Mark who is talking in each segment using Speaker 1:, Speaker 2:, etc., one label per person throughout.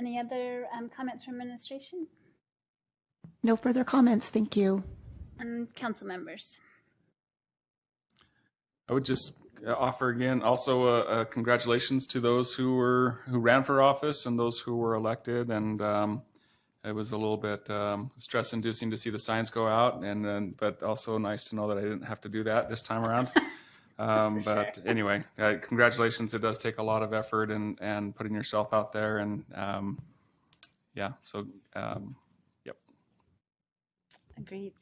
Speaker 1: Any other um, comments from administration
Speaker 2: No further comments. Thank you.
Speaker 1: and council members?
Speaker 3: I would just uh, offer again also uh, uh, congratulations to those who were who ran for office and those who were elected. And um, it was a little bit um, stress inducing to see the signs go out, and then but also nice to know that I didn't have to do that this time around. Um, but anyway, uh, congratulations! It does take a lot of effort and and putting yourself out there, and um, yeah. So um, yep.
Speaker 1: Agreed.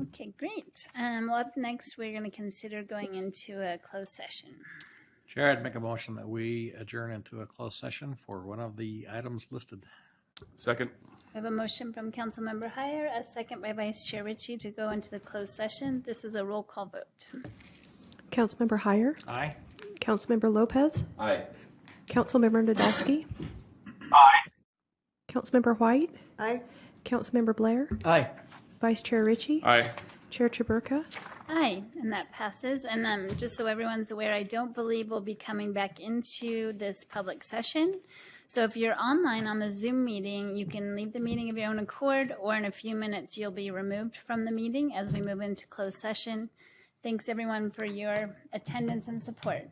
Speaker 1: Okay, great. Um, well, up next, we're going to consider going into a closed session.
Speaker 4: Chair, I'd make a motion that we adjourn into a closed session for one of the items listed.
Speaker 3: Second.
Speaker 1: We have a motion from Councilmember Hire, a second by Vice Chair Ritchie to go into the closed session. This is a roll call vote.
Speaker 5: Councilmember Hire,
Speaker 4: Aye.
Speaker 5: Councilmember Lopez,
Speaker 3: Aye.
Speaker 5: Councilmember Nadolski. Aye. Councilmember White. Aye. Councilmember Blair,
Speaker 4: Aye.
Speaker 5: Vice Chair Ritchie,
Speaker 3: Aye.
Speaker 5: Chair Chaburka.
Speaker 1: Aye, and that passes. And um, just so everyone's aware, I don't believe we'll be coming back into this public session. So if you're online on the Zoom meeting, you can leave the meeting of your own accord, or in a few minutes, you'll be removed from the meeting as we move into closed session. Thanks, everyone, for your attendance and support.